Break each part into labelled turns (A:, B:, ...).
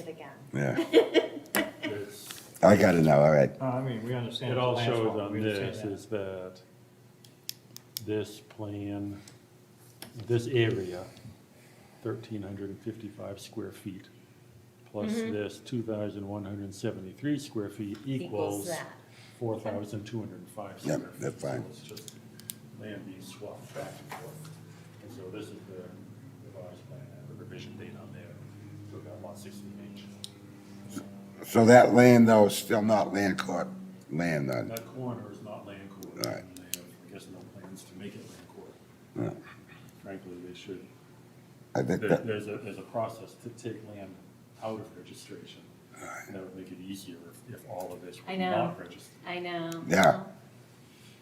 A: again.
B: Yeah,
C: It's-
B: I got it now, all right.
D: Uh, I mean, we understand.
C: It
D: it's a
C: all shows
D: landform.
C: on
D: We understand
C: this
D: that.
C: is that this plan, this area, thirteen hundred and fifty-five square feet, plus this two thousand one hundred and seventy-three square feet
A: Equals
C: equals
A: that.
C: four thousand two hundred and five
B: Yeah,
C: square feet.
B: that's
C: So
B: fine.
C: It's just land being swapped back and forth. And so this is the revised plan, and the revision date on there, so we've got lot sixteen H.
B: So that land though is still not land court land then?
C: That corner is not land court.
B: Right.
C: And They have, I guess, no plans to make it land court.
B: No.
C: Frankly, they should.
B: I think
C: There-
B: that,
C: There's a, there's a process to take land out of registration. And that would make it easier if, if all of this
A: I
C: were
A: know.
C: not registered.
A: I know.
B: Yeah.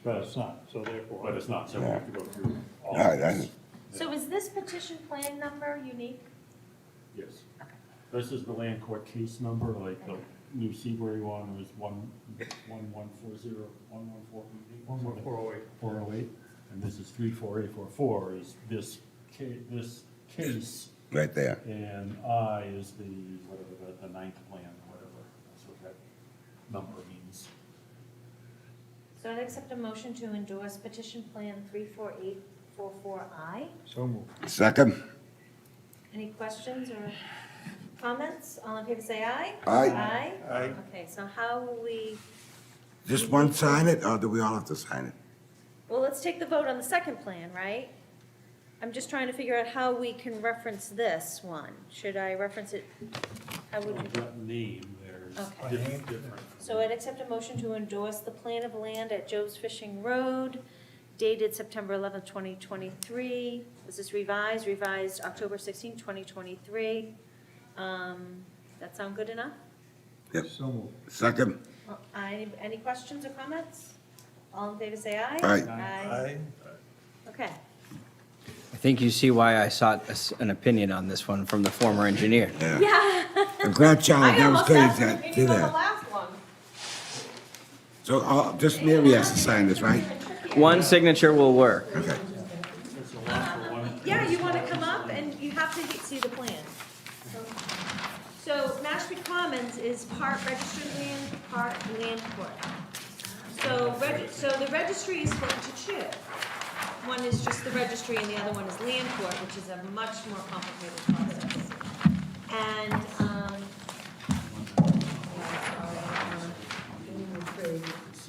C: But
D: It's not, so therefore.
C: But it's not, so we have to go through all
B: All right,
C: of this.
A: So is this petition plan number unique?
C: Yes.
A: Okay.
C: This is the land court case number, like the new Seabury one was one, one, one, four, zero, one, one, four, eight,
D: One more four oh eight.
C: four oh eight, and this is three four eight four four is this ca- this case,
B: right there.
C: and I is the, whatever, the, the ninth plan, whatever, that's what that number means.
A: So I'd accept a motion to endorse petition plan 34844I.
D: So moved.
B: Second?
A: Any questions or comments? All in favor, say aye.
B: Aye.
A: Aye? Okay, so how will we,
B: Just one sign it, or do we all have to sign it?
A: well, let's take the vote on the second plan, right? I'm just trying to figure out how we can reference this one. Should I reference it? How would we?
C: With That name, there's
A: Okay.
C: diff- different.
A: So I'd accept a motion to endorse the plan of land at Joe's Fishing Road dated September 11th, 2023. This is revised, revised October 16th, 2023. Um, That sound good enough?
B: Yep.
D: So moved.
B: Second?
A: Uh, Any any questions or comments? All in favor, say aye.
B: Aye.
A: Aye. Okay.
E: I think you see why I sought a s- an opinion on this one from the former engineer.
B: Yeah.
A: Yeah.
B: I'm glad Charlie
A: I
B: gave us
A: almost asked
B: credit
A: him
B: to-
A: if
B: to
A: he was the
B: that.
A: last one.
B: So, uh, just Mary has to sign this, right?
E: One signature will work.
B: Okay.
C: It's a lot for one.
A: Yeah, you want to come up and you have to see the plan. So Mashpee Commons is part registered land, part land court. So, reg- so the registry is split into two. One is just the registry and the other one is land court, which is a much more complicated process. And, um,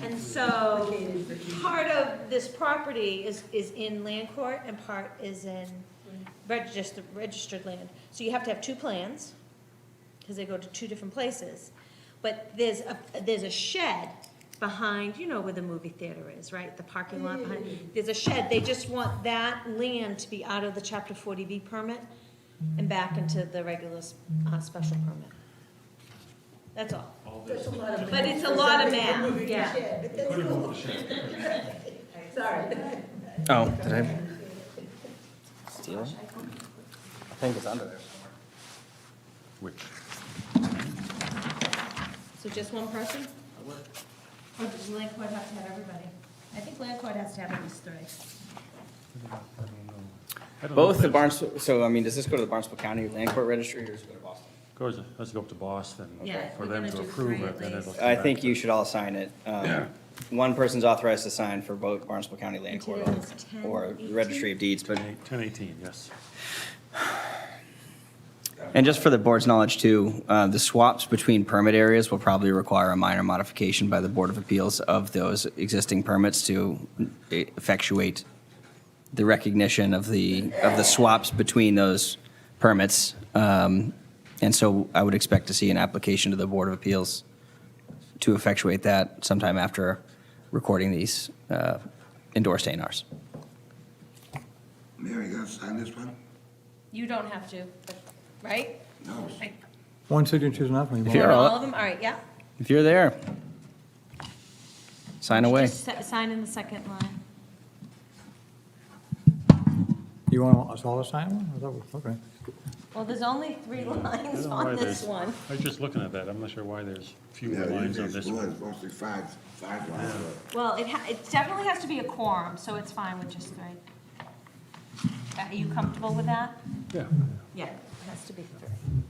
A: and so part of this property is, is in land court and part is in registered, registered land. So you have to have two plans, because they go to two different places. But there's a, there's a shed behind, you know where the movie theater is, right? The parking lot behind, there's a shed. They just want that land to be out of the chapter forty B permit and back into the regular, s- uh, special permit. That's all.
F: That's a lot of math.
A: But it's a lot of
F: Sorry,
A: math,
F: we're moving the
A: yeah.
F: shed, but that's cool. Sorry.
E: Oh, did I? Steal it? I think it's under there somewhere.
C: Which,
A: So just one person? Or Oh, does land court have to have everybody? I think land court has to have at least three.
E: Both the Barnstable, so I mean, does this go to the Barnstable County Land Court Registry or does it go to Boston?
C: goes, has to go up to Boston
A: Yeah, if
C: for
A: we're
C: them
A: gonna
C: to
A: do
C: approve
A: three
C: it,
A: at
C: then it'll.
A: least.
C: come
E: I
C: back
E: think
C: to-
E: you should all sign it. Um,
B: Yeah.
E: One person's authorized to sign for both Barnstable County Land Court
A: Today is 10,
E: or
A: 18.
E: Registry of Deeds, but
C: Ten eighteen, yes.
E: And just for the board's knowledge too, uh, the swaps between permit areas will probably require a minor modification by the Board of Appeals of those existing permits to eh, effectuate the recognition of the, of the swaps between those permits. Um, And so I would expect to see an application to the Board of Appeals to effectuate that sometime after recording these uh, endorsed ANRs.
B: Mary, you gonna sign this one?
A: You don't have to, but- right?
B: No.
A: Like,
D: One signature's enough. and you
E: If you're
D: won't-
E: all-
A: All of them, all right, yeah.
E: If you're there, sign away.
A: Just si- sign in the second line.
D: You want us all to sign one? I thought we- Okay.
A: Well, there's only three
C: I don't
A: lines
C: know why
A: on this
C: there's-
A: one.
C: I was just looking at that, I'm not sure why there's fewer
B: Yeah,
C: lines on
B: it's
C: this
B: more,
C: one.
B: it's Mostly five, five lines. but-
A: Well, it, ha- it definitely has to be a quorum, so it's fine with just three. Are you comfortable with that?
C: Yeah.
A: Yeah, it has to be three.